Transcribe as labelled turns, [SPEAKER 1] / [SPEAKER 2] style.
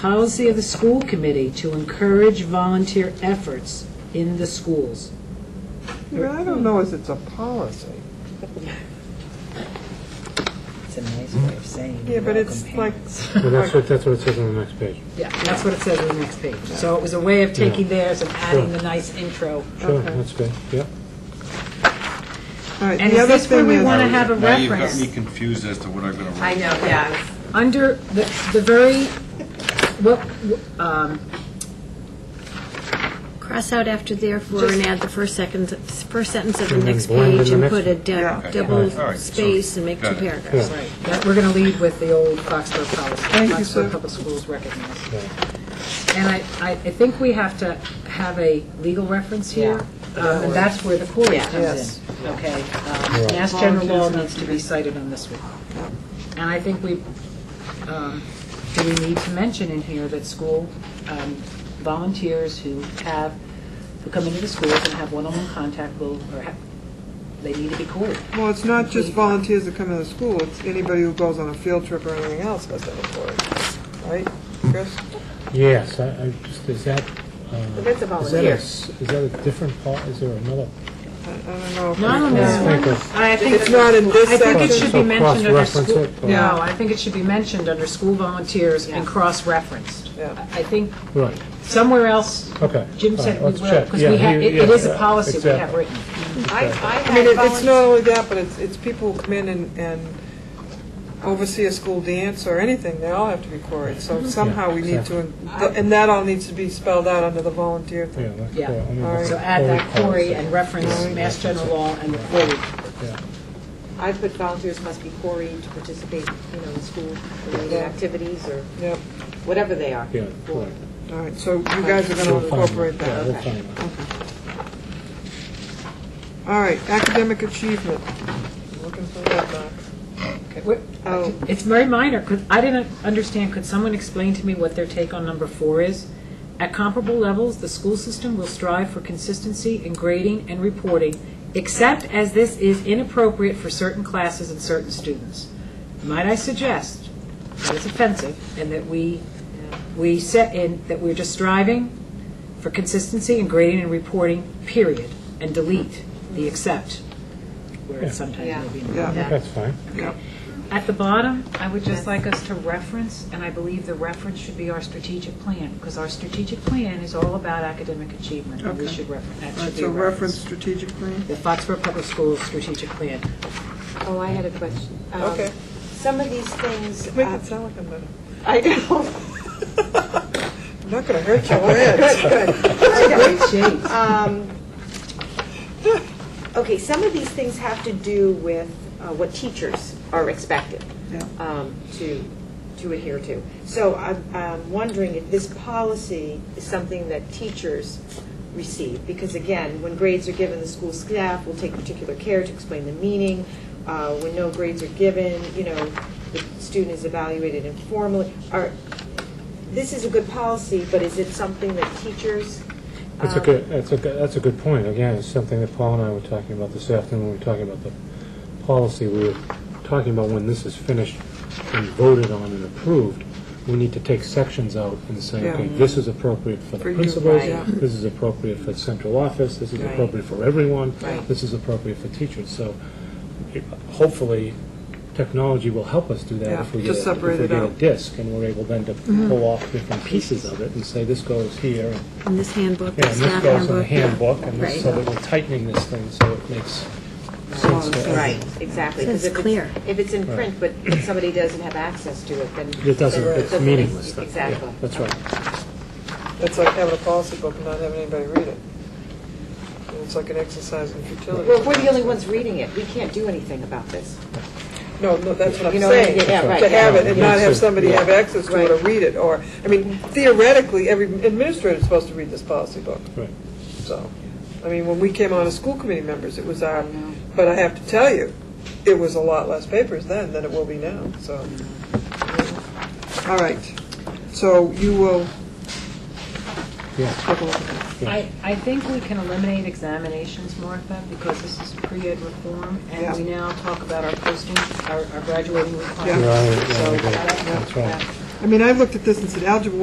[SPEAKER 1] policy of the school committee to encourage volunteer efforts in the schools.
[SPEAKER 2] I mean, I don't know if it's a policy.
[SPEAKER 3] It's a nice way of saying.
[SPEAKER 2] Yeah, but it's
[SPEAKER 3] welcome
[SPEAKER 2] like,
[SPEAKER 3] hands.
[SPEAKER 4] Well, that's what, that's what it says on the next page.
[SPEAKER 1] Yeah, that's what it says on the next page. So it was a way of taking theirs and adding
[SPEAKER 4] Sure.
[SPEAKER 1] the nice intro.
[SPEAKER 4] Sure,
[SPEAKER 2] Okay.
[SPEAKER 4] that's good, yeah.
[SPEAKER 2] all right,
[SPEAKER 1] And
[SPEAKER 2] the
[SPEAKER 1] is
[SPEAKER 2] other
[SPEAKER 1] this where
[SPEAKER 2] thing
[SPEAKER 1] we want to
[SPEAKER 2] is, um,
[SPEAKER 1] have a
[SPEAKER 5] Now you've got
[SPEAKER 1] reference?
[SPEAKER 5] me confused as to what I'm going to
[SPEAKER 6] I
[SPEAKER 5] write.
[SPEAKER 6] know, yeah.
[SPEAKER 1] Under the, the very, what, um,
[SPEAKER 7] Cross out after therefore and add the first second, first sentence of the
[SPEAKER 4] And then
[SPEAKER 7] next
[SPEAKER 4] blend in
[SPEAKER 7] page
[SPEAKER 4] the
[SPEAKER 7] and
[SPEAKER 4] next-
[SPEAKER 7] put a
[SPEAKER 2] Yeah.
[SPEAKER 7] dou-
[SPEAKER 5] Okay.
[SPEAKER 7] double
[SPEAKER 5] All right, so-
[SPEAKER 7] space and make two
[SPEAKER 5] got it.
[SPEAKER 7] paragraphs.
[SPEAKER 1] right, that, we're going to lead with the old Foxborough policy.
[SPEAKER 2] Thank you, sir.
[SPEAKER 1] Foxborough Public Schools recognize.
[SPEAKER 4] Yeah.
[SPEAKER 1] And I, I, I think we have to have a legal reference here, um, and that's where the quarry
[SPEAKER 2] Yes.
[SPEAKER 1] comes in, okay? Um,
[SPEAKER 4] Right.
[SPEAKER 1] Mass general law needs to be cited on this one. And I think we, um, do we need to mention in here that school um, volunteers who have, who come into the schools and have one-on-one contact will, or have, they need to be quarried.
[SPEAKER 2] well, it's not just volunteers that come to the school, it's anybody who goes on a field trip or anything else has to report, right, Chris?
[SPEAKER 4] Yes, I, I just, is that, uh, is
[SPEAKER 6] That's a
[SPEAKER 4] that a,
[SPEAKER 6] volunteer.
[SPEAKER 4] s- is that a different part, is there another?
[SPEAKER 2] I I don't know. if-
[SPEAKER 1] No,
[SPEAKER 4] Let's
[SPEAKER 1] no.
[SPEAKER 4] think of-
[SPEAKER 1] Uh, I think
[SPEAKER 2] It's not in this
[SPEAKER 1] I think it
[SPEAKER 2] section.
[SPEAKER 1] should be
[SPEAKER 4] So
[SPEAKER 1] mentioned under
[SPEAKER 4] cross-reference
[SPEAKER 1] school,
[SPEAKER 4] it, or-
[SPEAKER 2] Yeah.
[SPEAKER 1] no, I think it should be mentioned under school volunteers and cross-referenced.
[SPEAKER 2] Yeah.
[SPEAKER 1] I I think
[SPEAKER 4] Right,
[SPEAKER 1] somewhere else,
[SPEAKER 4] Okay.
[SPEAKER 1] Jim
[SPEAKER 4] All
[SPEAKER 1] said
[SPEAKER 4] right,
[SPEAKER 1] we will,
[SPEAKER 4] let's check.
[SPEAKER 1] because
[SPEAKER 4] Yeah,
[SPEAKER 1] we have,
[SPEAKER 4] you-
[SPEAKER 1] it it is a
[SPEAKER 4] yeah,
[SPEAKER 1] policy we have
[SPEAKER 4] exactly.
[SPEAKER 1] written.
[SPEAKER 6] I, I
[SPEAKER 2] I mean,
[SPEAKER 6] had
[SPEAKER 2] it- it's not
[SPEAKER 6] volunteers.
[SPEAKER 2] only that, but it's, it's people who come in and, and oversee a school dance or anything, they all have to be quarried,
[SPEAKER 1] Mm-hmm.
[SPEAKER 2] so somehow we need to, and that all needs to be spelled out under the volunteer thing.
[SPEAKER 4] yeah, let's,
[SPEAKER 1] Yeah.
[SPEAKER 4] yeah, let me
[SPEAKER 2] All right.
[SPEAKER 4] just-
[SPEAKER 1] So add that
[SPEAKER 4] Corey
[SPEAKER 1] query and reference Mass General Law and the query.
[SPEAKER 6] I put volunteers must be quarried to participate, you know, in school-related activities or
[SPEAKER 2] Yep,
[SPEAKER 6] whatever they are.
[SPEAKER 4] Yeah, correct.
[SPEAKER 2] all right, so you guys are gonna
[SPEAKER 4] We'll find it.
[SPEAKER 2] incorporate
[SPEAKER 4] Yeah,
[SPEAKER 2] that.
[SPEAKER 4] we'll find it.
[SPEAKER 2] All right, academic achievement. I'm Looking for that box. Oh.
[SPEAKER 1] It's very minor, because I didn't understand, could someone explain to me what their take on number four is? At comparable levels, the school system will strive for consistency in grading and reporting, except as this is inappropriate for certain classes and certain students. Might I suggest that it's offensive, and that we, we set in, that we're just striving for consistency in grading and reporting, period, and delete the except, where it sometimes will be.
[SPEAKER 2] Yeah.
[SPEAKER 1] involved.
[SPEAKER 2] Yeah.
[SPEAKER 4] That's fine.
[SPEAKER 1] At the bottom, I would just like us to reference, and I believe the reference should be our strategic plan, because our strategic plan is all about academic achievement, and we
[SPEAKER 2] Okay.
[SPEAKER 1] should reference, that
[SPEAKER 2] All right,
[SPEAKER 1] should be
[SPEAKER 2] so
[SPEAKER 1] a reference.
[SPEAKER 2] reference strategic plan.
[SPEAKER 1] The Foxborough Public Schools strategic plan.
[SPEAKER 6] Oh, I had a question. Um,
[SPEAKER 2] Okay.
[SPEAKER 6] Some of these things,
[SPEAKER 2] Make
[SPEAKER 6] uh,
[SPEAKER 2] it sound like I'm gonna,
[SPEAKER 6] I know.
[SPEAKER 2] I'm not gonna hurt your head.
[SPEAKER 1] Great shades.
[SPEAKER 6] Um, Okay, some of these things have to do with uh, what teachers are expected
[SPEAKER 2] Yeah.
[SPEAKER 6] um, to, to adhere to. So I'm- I'm wondering if this policy is something that teachers receive, because again, when grades are given, the school staff will take particular care to explain the meaning. Uh, When no grades are given, you know, the student is evaluated informally. Are, this is a good policy, but is it something that teachers?
[SPEAKER 4] That's a
[SPEAKER 6] um,
[SPEAKER 4] good, that's a, good- that's a good point. Again, it's something that Paul and I were talking about this afternoon, when we were talking about the policy, we were talking about when this is finished and voted on and approved, we need to take sections out and say,
[SPEAKER 2] Yeah.
[SPEAKER 4] okay, this is appropriate
[SPEAKER 2] For
[SPEAKER 4] for the
[SPEAKER 2] you,
[SPEAKER 4] principals,
[SPEAKER 2] right. Yeah.
[SPEAKER 4] this is appropriate for central office, this is
[SPEAKER 6] Right.
[SPEAKER 4] appropriate for everyone,
[SPEAKER 6] Right.
[SPEAKER 4] this is appropriate for teachers. So it- hopefully, technology will help us do that
[SPEAKER 2] Yeah,
[SPEAKER 4] if we
[SPEAKER 2] to
[SPEAKER 4] get, a- if
[SPEAKER 2] separate
[SPEAKER 4] we
[SPEAKER 2] it
[SPEAKER 4] get a
[SPEAKER 2] out. Mm-hmm.
[SPEAKER 4] disc, and we're able then to pull off different pieces of it and say, this goes here, and
[SPEAKER 7] In this handbook,
[SPEAKER 4] yeah,
[SPEAKER 7] the
[SPEAKER 4] and
[SPEAKER 7] staff
[SPEAKER 4] this goes in the
[SPEAKER 7] handbook.
[SPEAKER 4] handbook, and
[SPEAKER 7] Right.
[SPEAKER 4] this- so that we're tightening this thing so it makes sense to everyone.
[SPEAKER 6] Right, exactly. 'cause
[SPEAKER 7] It's
[SPEAKER 6] if
[SPEAKER 7] clear.
[SPEAKER 6] If it's in print, but if somebody doesn't have access to it, then.
[SPEAKER 4] It doesn't,
[SPEAKER 6] then it
[SPEAKER 4] it's
[SPEAKER 6] doesn't-
[SPEAKER 4] meaningless then. Yeah,
[SPEAKER 6] Exactly.
[SPEAKER 4] That's right.
[SPEAKER 2] It's like having a policy book and not having anybody read it. And It's like an exercise in futility.
[SPEAKER 6] Well, we're the only ones reading it. We can't do anything about this.
[SPEAKER 2] No, no, that's what I'm
[SPEAKER 6] You know,
[SPEAKER 2] saying.
[SPEAKER 6] yeah, yeah, right,
[SPEAKER 2] To have
[SPEAKER 6] yeah.
[SPEAKER 2] it and not have somebody have access to it or
[SPEAKER 6] Right.
[SPEAKER 2] read it, or, I mean, theoretically, every administrator is supposed to read this policy book.
[SPEAKER 4] Right.
[SPEAKER 2] So, I mean, when we came on as school committee members, it was our, but I have to tell you, it was a lot less papers then than it will be now, so. All right, so you will
[SPEAKER 4] Yeah.
[SPEAKER 2] take a look at that.
[SPEAKER 1] I, I think we can eliminate examinations, Martha, because this is pre-ed reform, and we now talk about our posting, our our graduating requirements.
[SPEAKER 4] Right, yeah,
[SPEAKER 1] So
[SPEAKER 4] we do.
[SPEAKER 1] that-
[SPEAKER 4] That's right.
[SPEAKER 1] that-
[SPEAKER 2] I mean, I looked at this and said algebra